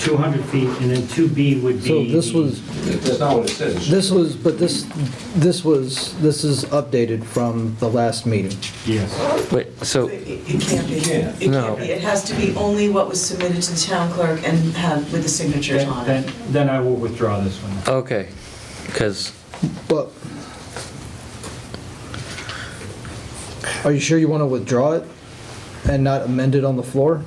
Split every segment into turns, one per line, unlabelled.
200 feet, and then 2B would be...
So this was,
That's not what it says.
this was, but this, this was, this is updated from the last meeting.
Yes.
Wait, so,
It it can't be, it can't be.
No.
It has to be only what was submitted to the town clerk and have, with the signatures
Then,
on it.
then- then I will withdraw this one.
okay, because,
But, are you sure you want to withdraw it and not amend it on the floor?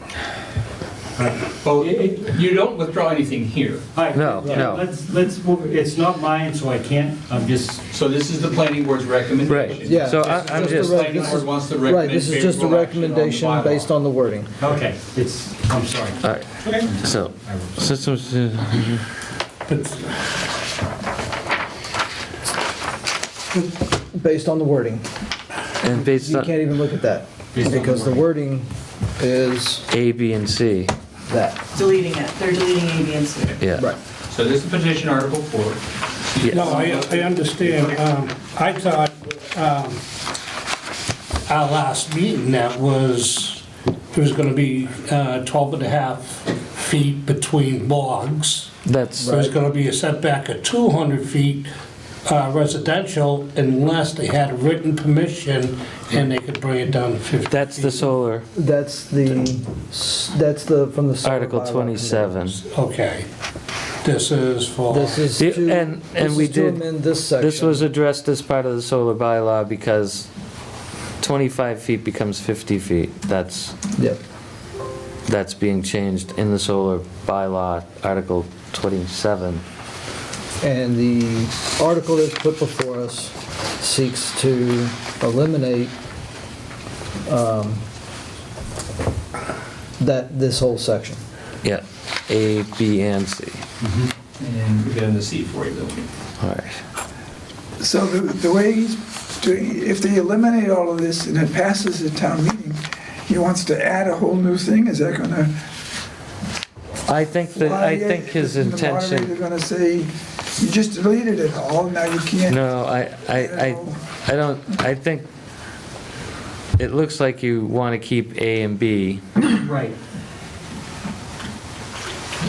Well, it- it- you don't withdraw anything here.
All right,
No,
yeah,
no.
Let's, let's, move it. it's not mine, so I can't, I'm just,
So this is the planning board's recommendation.
Right.
Yeah.
So I-
this is
I'm
a
just-
rec-
Planning
this
board
is-
wants to
Right, this is
recommend
just a
favorable action on the
recommendation
bylaw.
based on the wording.
okay, it's, I'm sorry.
all right,
Okay.
so,
I will-
systems, uh,
Based on the wording.
and based
You can't
on
even look at that,
Based on the
because the wording is
A, B, and C,
that,
Deleting it, they're deleting A, B, and C.
yeah.
right.
So this is petition article four.
No, I, I understand. Um, I thought, um, our last meeting, that was, it was gonna be, uh, twelve and a half feet between logs.
That's,
There's gonna be a setback of two hundred feet uh, residential unless they had written permission and they could bring it down to fifty.
that's the solar,
That's the, s- that's the, from the. solar
Article
bylaw committee.
27.
Okay. This is for.
This is
The-
to.
and- and
this
we
is to
did-
amend this section.
This was addressed as part of the solar bylaw because 25 feet becomes 50 feet. That's,
Yep,
that's being changed in the solar bylaw, Article 27.
and the article that's put before us seeks to eliminate um, that, this whole section.
Yeah, A, B, and C.
And we're getting the C for you, though.
All right.
So the the way he's doing, if they eliminate all of this and it passes at town meeting, he wants to add a whole new thing, is that gonna?
I think that, I
fly it?
think his
Isn't The
intention,
moderator gonna say, you just deleted it all, now you can't.
no, I, I,
No.
I, I don't, I think, it looks like you want to keep A and B.
Right.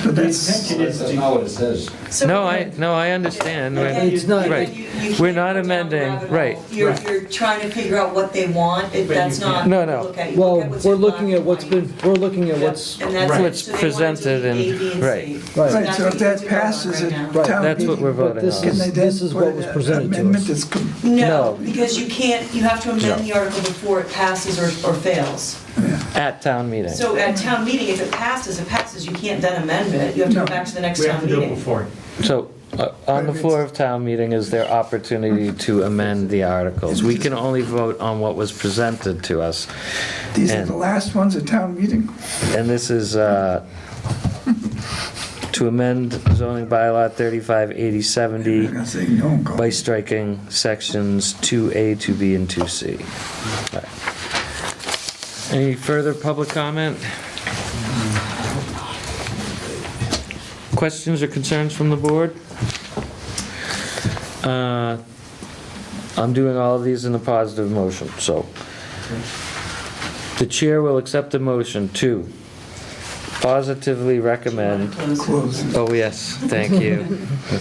But
The
that's-
intention is
That's
to,
not what it says.
So-
No, I, no, I understand.
Again,
right.
It's not-
again,
Right.
you- you
We're
can't
not
go down the
amending,
rabbit
right.
hole. You're,
Right.
you're trying to figure out what they want, if
But you
that's not.
can't.
No, no.
look at- you
Well,
look at what's
we're
in
looking
black
at
and
what's
white.
been, we're looking at what's,
And that's
Right.
it.
What's
So they wanted
presented and-
to do A, B, and C.
right.
right,
Right, so if that passes at town
Right.
meeting.
That's what we're
but
voting
this
on.
can they
is,
then
this is
put
what was
an
presented to
amendment
us.
that's com-
No.
No, because you can't, you have to amend the article before it passes or, or fails.
At town meeting.
So at town meeting, if it passes, it passes, you can't then amend it, you have to go back to the next
we have
town
to do it
meeting.
before.
So, uh, on the floor of town meeting is their opportunity to amend the articles. We can only vote on what was presented to us,
These are
And-
the last ones at town meeting.
and this is uh, to amend zoning bylaw 358070
They're gonna say, no, go.
by striking sections 2A, 2B, and 2C. Right. Any further public comment? Questions or concerns from the board? Uh, I'm doing all of these in a positive motion, so. The chair will accept a motion to positively recommend,
Close.
oh yes, thank you.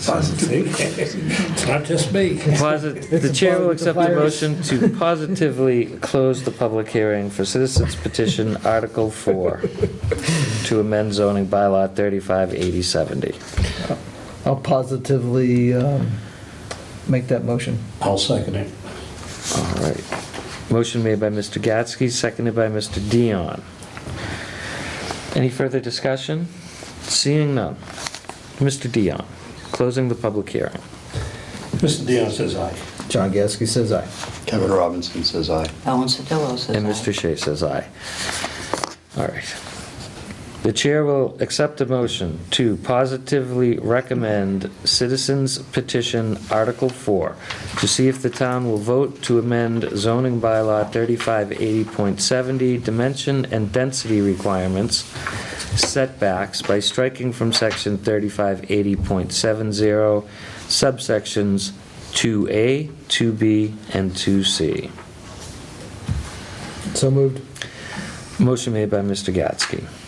Positive.
It's not just me.
Posit- The chair will accept the motion to positively close the public hearing for citizens petition Article 4 to amend zoning bylaw 358070.
I'll positively um, make that motion.
I'll second it.
All right. Motion made by Mr. Gatsky, seconded by Mr. Dion. Any further discussion? Seeing none. Mr. Dion, closing the public hearing.
Mr. Dion says aye.
John Gasky says aye.
Kevin Robinson says aye.
Ellen Sodillo says
And
aye.
Mr. Shea says aye. All right. The chair will accept a motion to positively recommend citizens petition Article 4 to see if the town will vote to amend zoning bylaw 3580.70 dimension and density requirements setbacks by striking from section 3580.70 subsections 2A, 2B, and 2C.
So moved.
Motion made by Mr. Gatsky,